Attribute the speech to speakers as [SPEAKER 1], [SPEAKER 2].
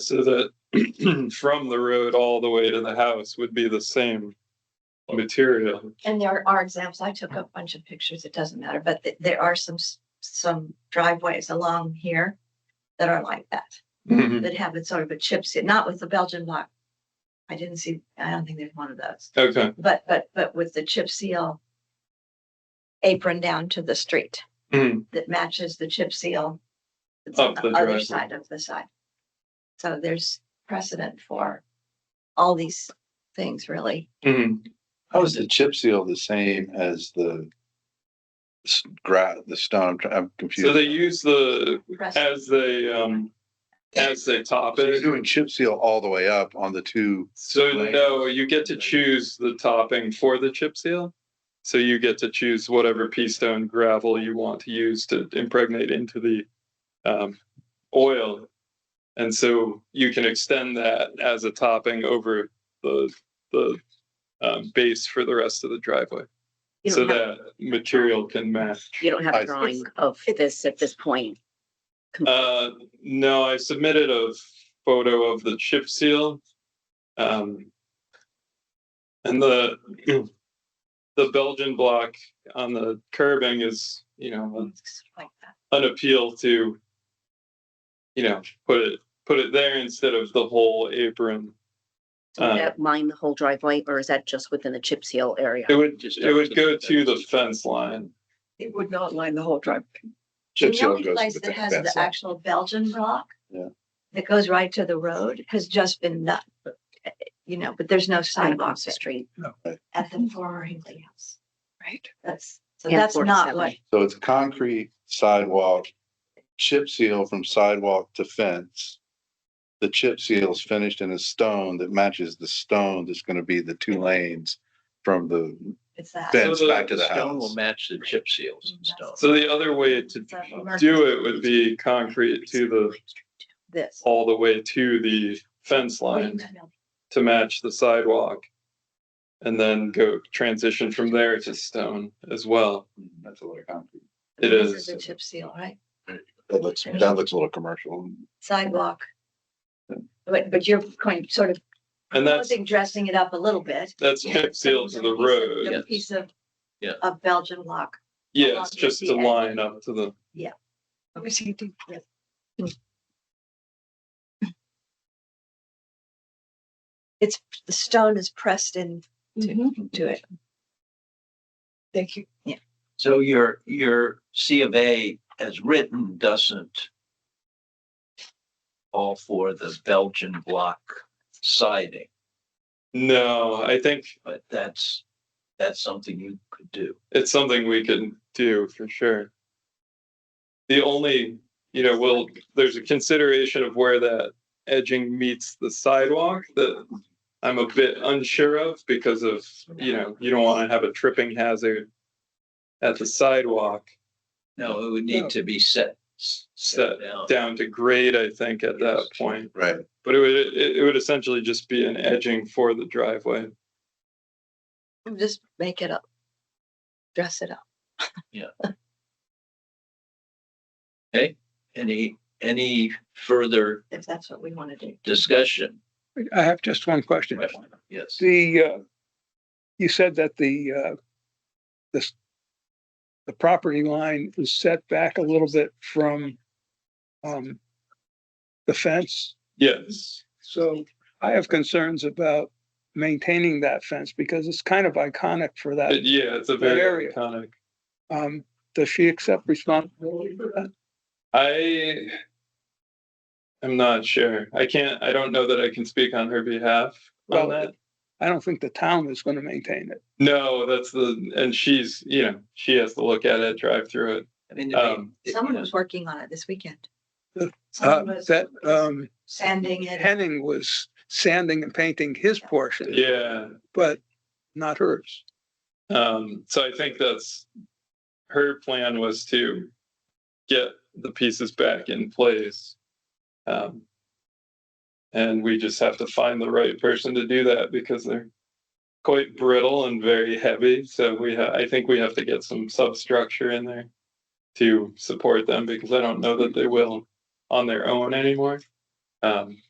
[SPEAKER 1] so that from the road all the way to the house would be the same material.
[SPEAKER 2] And there are examples. I took a bunch of pictures. It doesn't matter, but th- there are some, s- some driveways along here that are like that,
[SPEAKER 1] Mhm.
[SPEAKER 2] that have it sort of a chip seal, not with the Belgian block. I didn't see, I don't think there's one of those,
[SPEAKER 1] Okay.
[SPEAKER 2] but, but, but with the chip seal apron down to the street
[SPEAKER 1] Mhm.
[SPEAKER 2] that matches the chip seal that's on
[SPEAKER 1] Up the
[SPEAKER 2] the other
[SPEAKER 1] driveway.
[SPEAKER 2] side of the side. So there's precedent for all these things really.
[SPEAKER 1] Mhm.
[SPEAKER 3] How is the chip seal the same as the s- gra, the stone? I'm try- I'm
[SPEAKER 1] So they
[SPEAKER 3] confused.
[SPEAKER 1] use the,
[SPEAKER 2] precedent.
[SPEAKER 1] as they, um, as they top
[SPEAKER 3] So you're
[SPEAKER 1] it.
[SPEAKER 3] doing chip seal all the way up on the two,
[SPEAKER 1] So
[SPEAKER 3] Like-
[SPEAKER 1] no, you get to choose the topping for the chip seal. So you get to choose whatever pea stone gravel you want to use to impregnate into the um, oil. And so you can extend that as a topping over the, the um, base for the rest of the driveway.
[SPEAKER 4] You
[SPEAKER 1] So
[SPEAKER 4] don't have,
[SPEAKER 1] that material can match.
[SPEAKER 4] you don't have
[SPEAKER 3] I
[SPEAKER 4] a
[SPEAKER 3] see.
[SPEAKER 4] drawing of this at this point.
[SPEAKER 1] Uh, no, I submitted a photo of the chip seal. Um, and the, the Belgian block on the curbing is, you know,
[SPEAKER 2] Like that.
[SPEAKER 1] an appeal to, you know, put it, put it there instead of the whole apron.
[SPEAKER 4] So would
[SPEAKER 1] Uh,
[SPEAKER 4] that line the whole driveway or is that just within the chip seal area?
[SPEAKER 1] It would, it would go to the fence line.
[SPEAKER 5] It would not line the whole drive.
[SPEAKER 3] chip
[SPEAKER 2] The
[SPEAKER 3] seal
[SPEAKER 2] only
[SPEAKER 3] goes
[SPEAKER 2] place
[SPEAKER 3] with
[SPEAKER 2] that
[SPEAKER 3] the
[SPEAKER 2] has the
[SPEAKER 3] fence line.
[SPEAKER 2] actual Belgian block.
[SPEAKER 3] Yeah.
[SPEAKER 2] That goes right to the road has just been done. You know, but there's no
[SPEAKER 4] Kind of
[SPEAKER 2] sidewalk
[SPEAKER 4] Across the street.
[SPEAKER 2] at the former Hinkley House. Right. That's, so
[SPEAKER 4] And
[SPEAKER 2] that's not
[SPEAKER 4] 47.
[SPEAKER 2] what,
[SPEAKER 3] So it's concrete sidewalk, chip seal from sidewalk to fence. The chip seal is finished in a stone that matches the stone that's gonna be the two lanes from the
[SPEAKER 2] it's Mm, that.
[SPEAKER 3] fence
[SPEAKER 1] So the
[SPEAKER 3] back to the
[SPEAKER 6] Stone will
[SPEAKER 3] house.
[SPEAKER 6] match the chip seals and stone.
[SPEAKER 1] So the other way to do it would be concrete to the,
[SPEAKER 2] This.
[SPEAKER 1] all the way to the fence line. to match the sidewalk. And then go transition from there to stone as well.
[SPEAKER 3] Hmm, That's a lot of concrete.
[SPEAKER 1] It
[SPEAKER 2] This is
[SPEAKER 1] is.
[SPEAKER 2] the chip seal, right?
[SPEAKER 3] That looks, that looks a little commercial.
[SPEAKER 2] Sidewalk. But, but you're kind of sort of
[SPEAKER 1] And that's,
[SPEAKER 2] proposing dressing it up a little bit.
[SPEAKER 1] that's chip seal to the
[SPEAKER 2] Piece of-
[SPEAKER 1] road.
[SPEAKER 2] A piece of.
[SPEAKER 6] Yeah.
[SPEAKER 2] Of Belgian block.
[SPEAKER 1] Yeah, it's just a line up to the,
[SPEAKER 2] Mm-hmm. The stone is pressed in to, to it.
[SPEAKER 5] Thank you.
[SPEAKER 6] So your, your C of A as written doesn't call for the Belgian block siding,
[SPEAKER 1] no, I think
[SPEAKER 6] but that's, that's something you could do.
[SPEAKER 1] it's something we can do for sure. The only, you know, well, there's a consideration of where that edging meets the sidewalk that I'm a bit unsure of because of, you know, you don't want to have a tripping hazard at the sidewalk
[SPEAKER 6] No, it would need to be set.
[SPEAKER 1] set
[SPEAKER 6] down.
[SPEAKER 1] down to grade, I think, at that point.
[SPEAKER 3] Right.
[SPEAKER 1] But it would, it it would essentially just be an edging for the driveway.
[SPEAKER 2] Just make it up. Dress it up.
[SPEAKER 6] Any, any further
[SPEAKER 2] if that's what we want to do.
[SPEAKER 6] discussion?
[SPEAKER 7] I have just one question.
[SPEAKER 6] Yes.
[SPEAKER 7] The, uh, you said that the, uh, this, the property line is set back a little bit from, um, the fence.
[SPEAKER 1] Yes.
[SPEAKER 7] So I have concerns about maintaining that fence because it's kind of iconic for that.
[SPEAKER 1] Uh, Yeah, it's a
[SPEAKER 7] That
[SPEAKER 1] very
[SPEAKER 7] area.
[SPEAKER 1] iconic.
[SPEAKER 7] Um, does she accept responsibility for that?
[SPEAKER 1] I am not sure. I can't, I don't know that I can speak on her behalf on
[SPEAKER 7] Well,
[SPEAKER 1] that.
[SPEAKER 7] I don't think the town is going to maintain it.
[SPEAKER 1] No, that's the, and she's, you know, she has to look at it, drive through it.
[SPEAKER 6] I mean,
[SPEAKER 1] Um,
[SPEAKER 6] it-
[SPEAKER 2] Someone
[SPEAKER 6] yeah.
[SPEAKER 2] was working on it this weekend.
[SPEAKER 7] Uh, Uh,
[SPEAKER 2] Someone was
[SPEAKER 7] that, um,
[SPEAKER 2] Sanding it.
[SPEAKER 7] Henning was sanding and painting his portion,
[SPEAKER 1] Yeah.
[SPEAKER 7] but not hers.
[SPEAKER 1] Um, so I think that's, her plan was to get the pieces back in place. Um, and we just have to find the right person to do that because they're quite brittle and very heavy. So we ha- I think we have to get some substructure in there to support them because I don't know that they will on their own anymore. Um,